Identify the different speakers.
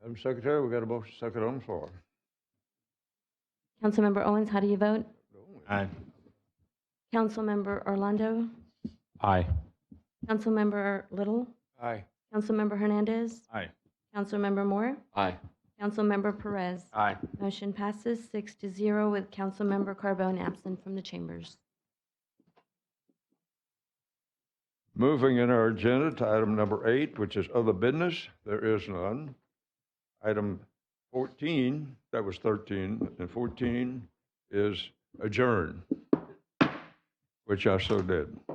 Speaker 1: Madam Secretary, we got a motion second on the floor.
Speaker 2: Councilmember Owens, how do you vote?
Speaker 3: Aye.
Speaker 2: Councilmember Orlando?
Speaker 3: Aye.
Speaker 2: Councilmember Little?
Speaker 1: Aye.
Speaker 2: Councilmember Hernandez?
Speaker 3: Aye.
Speaker 2: Councilmember Moore?
Speaker 3: Aye.
Speaker 2: Councilmember Perez?
Speaker 3: Aye.
Speaker 2: Motion passes six to zero with Councilmember Carbone absent from the chambers.
Speaker 1: Moving in our agenda to item number eight, which is other business, there is none. Item 14, that was 13, and 14 is adjourn, which I so did.